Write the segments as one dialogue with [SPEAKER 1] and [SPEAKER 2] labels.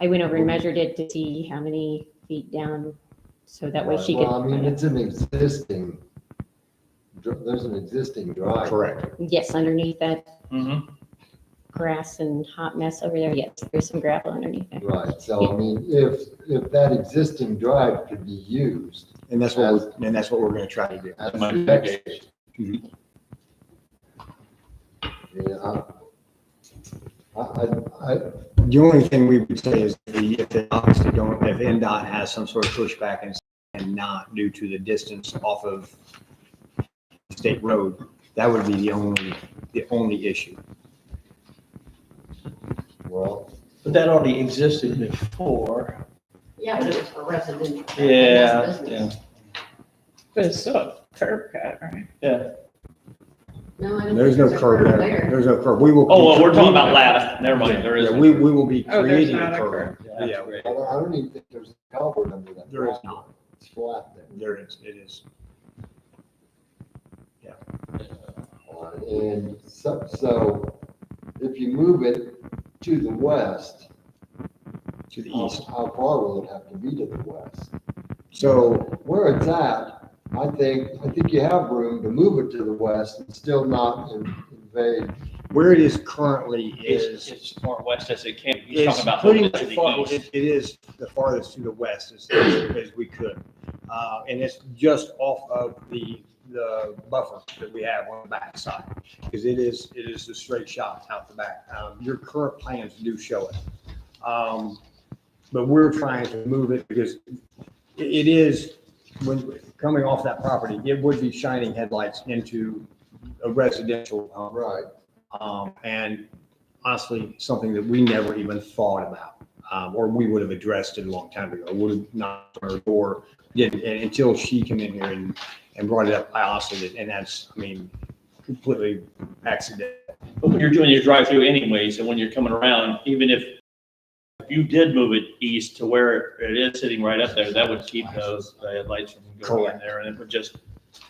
[SPEAKER 1] I went over and measured it to see how many feet down, so that way she could.
[SPEAKER 2] Well, I mean, it's an existing, dr- there's an existing drive.
[SPEAKER 3] Correct.
[SPEAKER 1] Yes, underneath that
[SPEAKER 4] Mhm.
[SPEAKER 1] grass and hot mess over there, yes, there's some gravel underneath it.
[SPEAKER 2] Right, so I mean, if, if that existing drive could be used
[SPEAKER 3] And that's what, we're- and that's what we're gonna try to do.
[SPEAKER 2] as
[SPEAKER 4] Might
[SPEAKER 2] a
[SPEAKER 4] be
[SPEAKER 2] deck
[SPEAKER 4] good.
[SPEAKER 2] station. Yeah, I, I, I,
[SPEAKER 3] The only thing we would say is the, if they obviously don't, if NDOT has some sort of pushback and, and not due to the distance off of state road, that would be the only, the only issue.
[SPEAKER 2] well,
[SPEAKER 5] But that already existed before.
[SPEAKER 6] Yeah, it was for residential.
[SPEAKER 4] Yeah,
[SPEAKER 6] That's
[SPEAKER 4] yeah.
[SPEAKER 6] business.
[SPEAKER 7] But it's still a curb cut, right?
[SPEAKER 6] No, I don't
[SPEAKER 3] There's no
[SPEAKER 6] think
[SPEAKER 3] curb
[SPEAKER 6] curb
[SPEAKER 3] there. There's no curb. We will.
[SPEAKER 4] Oh, well, we're talking about lattice. Never mind, there is.
[SPEAKER 3] Yeah, we, we will be
[SPEAKER 7] Oh, there's
[SPEAKER 3] creating
[SPEAKER 7] not
[SPEAKER 3] a
[SPEAKER 7] a
[SPEAKER 3] curb.
[SPEAKER 4] curb.
[SPEAKER 3] Yeah,
[SPEAKER 2] I don't, I don't even think there's a culvert under that.
[SPEAKER 3] there is
[SPEAKER 2] rock.
[SPEAKER 3] not.
[SPEAKER 2] It's flat there.
[SPEAKER 3] There is, it is.
[SPEAKER 2] Uh, And so, so if you move it to the west,
[SPEAKER 3] To the
[SPEAKER 4] Oh.
[SPEAKER 2] how
[SPEAKER 3] east.
[SPEAKER 2] how far will it have to be to the west?
[SPEAKER 3] So,
[SPEAKER 2] Where it's at, I think, I think you have room to move it to the west and still not in- invade.
[SPEAKER 3] where it is currently
[SPEAKER 4] It's,
[SPEAKER 3] is,
[SPEAKER 4] it's as far west as it can. He's
[SPEAKER 3] is
[SPEAKER 4] talking about
[SPEAKER 3] pretty
[SPEAKER 4] moving to
[SPEAKER 3] much far,
[SPEAKER 4] the east.
[SPEAKER 3] it it is the farthest to the west as, as we could. Uh, and it's just off of the, the buffer that we have on the back side. Because it is, it is the straight shot out the back. Um, your current plans do show it. Um, but we're trying to move it because it, it is, when, coming off that property, it would be shining headlights into a residential home.
[SPEAKER 2] Right.
[SPEAKER 3] um, and honestly, something that we never even thought about, um, or we would have addressed it a long time ago, would have knocked on her door, didn't, and until she came in here and, and brought it up, I honestly did, and that's, I mean, completely accidental.
[SPEAKER 4] But when you're doing your drive-through anyways, and when you're coming around, even if if you did move it east to where it is sitting right up there, that would keep those uh, lights from going in
[SPEAKER 3] Correct.
[SPEAKER 4] there and it would just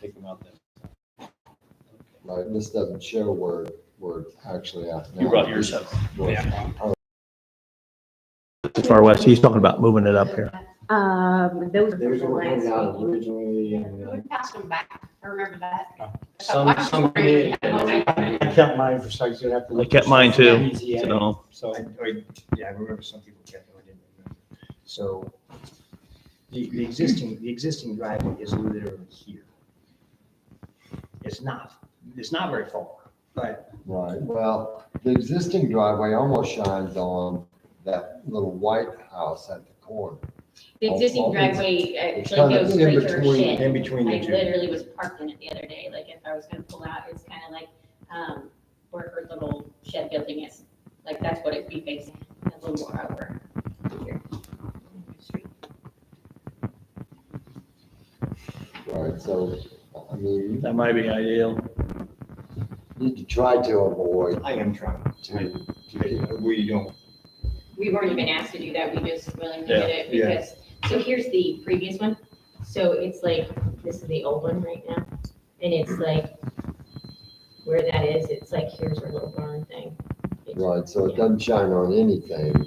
[SPEAKER 4] take them out there.
[SPEAKER 2] Right, and this doesn't show where, where it's actually at now.
[SPEAKER 4] You brought yours up.
[SPEAKER 2] Yeah.
[SPEAKER 5] Too far west. He's talking about moving it up here.
[SPEAKER 1] Um, those. are
[SPEAKER 2] There's
[SPEAKER 1] the
[SPEAKER 2] one
[SPEAKER 1] last
[SPEAKER 2] coming out
[SPEAKER 1] meeting.
[SPEAKER 2] originally and.
[SPEAKER 6] We
[SPEAKER 2] uh,
[SPEAKER 6] passed them back. I remember that.
[SPEAKER 8] Some, some community, I kept mine for sites that have to.
[SPEAKER 5] I kept mine too, So
[SPEAKER 8] So,
[SPEAKER 3] I, I, yeah, I remember some people kept, I didn't remember. So the, the existing, the existing driveway is literally here. It's not, it's not very far, but
[SPEAKER 2] Right, well, the existing driveway almost shines on that little white house at the corner.
[SPEAKER 1] The existing driveway
[SPEAKER 2] It's
[SPEAKER 1] actually
[SPEAKER 2] kind
[SPEAKER 1] goes
[SPEAKER 2] of
[SPEAKER 1] straight to
[SPEAKER 2] in
[SPEAKER 1] her
[SPEAKER 2] between,
[SPEAKER 1] shed.
[SPEAKER 3] in between
[SPEAKER 1] I
[SPEAKER 3] the two.
[SPEAKER 1] literally was parked in it the other day, like if I was gonna pull out, it's kind of like, um, where her little shed building is. Like that's what it'd be facing, a little more over here.
[SPEAKER 2] right, so, I mean,
[SPEAKER 4] That might be ideal.
[SPEAKER 2] you need to try to avoid
[SPEAKER 3] I am trying
[SPEAKER 2] to,
[SPEAKER 3] to, we don't.
[SPEAKER 1] We weren't even asked to do that, we just willingly
[SPEAKER 4] Yeah,
[SPEAKER 1] did it
[SPEAKER 3] yeah.
[SPEAKER 1] because, so here's the previous one. So it's like, this is the old one right now, and it's like, where that is, it's like, here's her little barn thing. It's-
[SPEAKER 2] right, so it doesn't shine on anything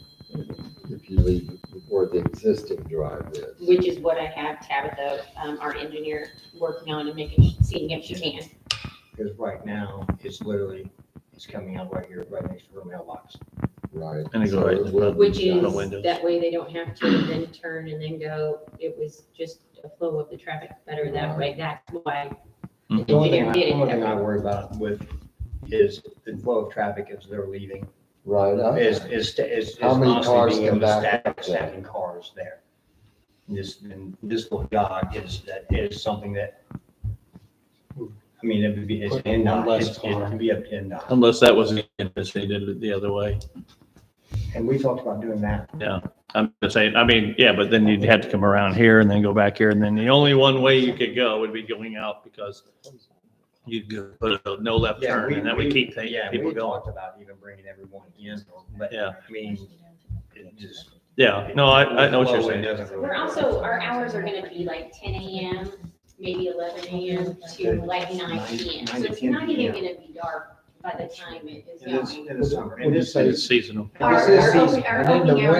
[SPEAKER 2] if you leave it where the existing drive is.
[SPEAKER 1] which is what I have Tabitha, um, our engineer, working on and making, seeing if she can.
[SPEAKER 3] Because right now, it's literally, it's coming out right here, right next to her mailbox.
[SPEAKER 2] Right.
[SPEAKER 4] And it goes
[SPEAKER 2] So
[SPEAKER 4] right
[SPEAKER 2] it
[SPEAKER 4] to-
[SPEAKER 2] will be
[SPEAKER 1] Which
[SPEAKER 2] shine-
[SPEAKER 4] Out
[SPEAKER 1] is,
[SPEAKER 4] of windows.
[SPEAKER 1] that way they don't have to then turn and then go, it was just a flow of the traffic better that way, that's why. the
[SPEAKER 3] The only thing,
[SPEAKER 1] engineer
[SPEAKER 3] I-
[SPEAKER 1] did
[SPEAKER 3] the
[SPEAKER 1] it
[SPEAKER 3] only thing I
[SPEAKER 1] that way.
[SPEAKER 3] worry about with is the flow of traffic as they're leaving,
[SPEAKER 2] Right,
[SPEAKER 3] is,
[SPEAKER 2] I-
[SPEAKER 3] is, is is
[SPEAKER 2] How many cars
[SPEAKER 3] honestly being
[SPEAKER 2] can
[SPEAKER 3] able to
[SPEAKER 2] back up
[SPEAKER 3] stack, stacking cars there. This, and this little jog is, that is something that, I mean, it would be, it's in,
[SPEAKER 8] Unless
[SPEAKER 3] it's- it can be up to in.
[SPEAKER 4] Unless that was, if they did it the other way.
[SPEAKER 3] And we talked about doing that.
[SPEAKER 4] I'm just saying, I mean, yeah, but then you'd have to come around here and then go back here. And then the only one way you could go would be going out because you'd go put a no left
[SPEAKER 3] Yeah,
[SPEAKER 4] turn
[SPEAKER 3] we-
[SPEAKER 4] and that would
[SPEAKER 3] we-
[SPEAKER 4] keep the-
[SPEAKER 3] yeah,
[SPEAKER 4] people
[SPEAKER 3] we
[SPEAKER 4] going.
[SPEAKER 3] Talked about even bringing everyone in, but,
[SPEAKER 4] Yeah.
[SPEAKER 3] I mean, it just.
[SPEAKER 4] Yeah, no, I, I know what you're saying.
[SPEAKER 1] We're also, our hours are gonna be like ten AM, maybe eleven AM to like nine PM. So it's not even gonna be dark by the time it is
[SPEAKER 3] It is,
[SPEAKER 1] going.
[SPEAKER 3] it is summer.
[SPEAKER 8] Would
[SPEAKER 3] And
[SPEAKER 8] you
[SPEAKER 3] this
[SPEAKER 8] say
[SPEAKER 3] is
[SPEAKER 4] It's seasonal.
[SPEAKER 1] Our,
[SPEAKER 2] This is
[SPEAKER 1] our, open-
[SPEAKER 2] season.
[SPEAKER 1] our
[SPEAKER 2] And then
[SPEAKER 1] opening
[SPEAKER 2] the
[SPEAKER 1] hours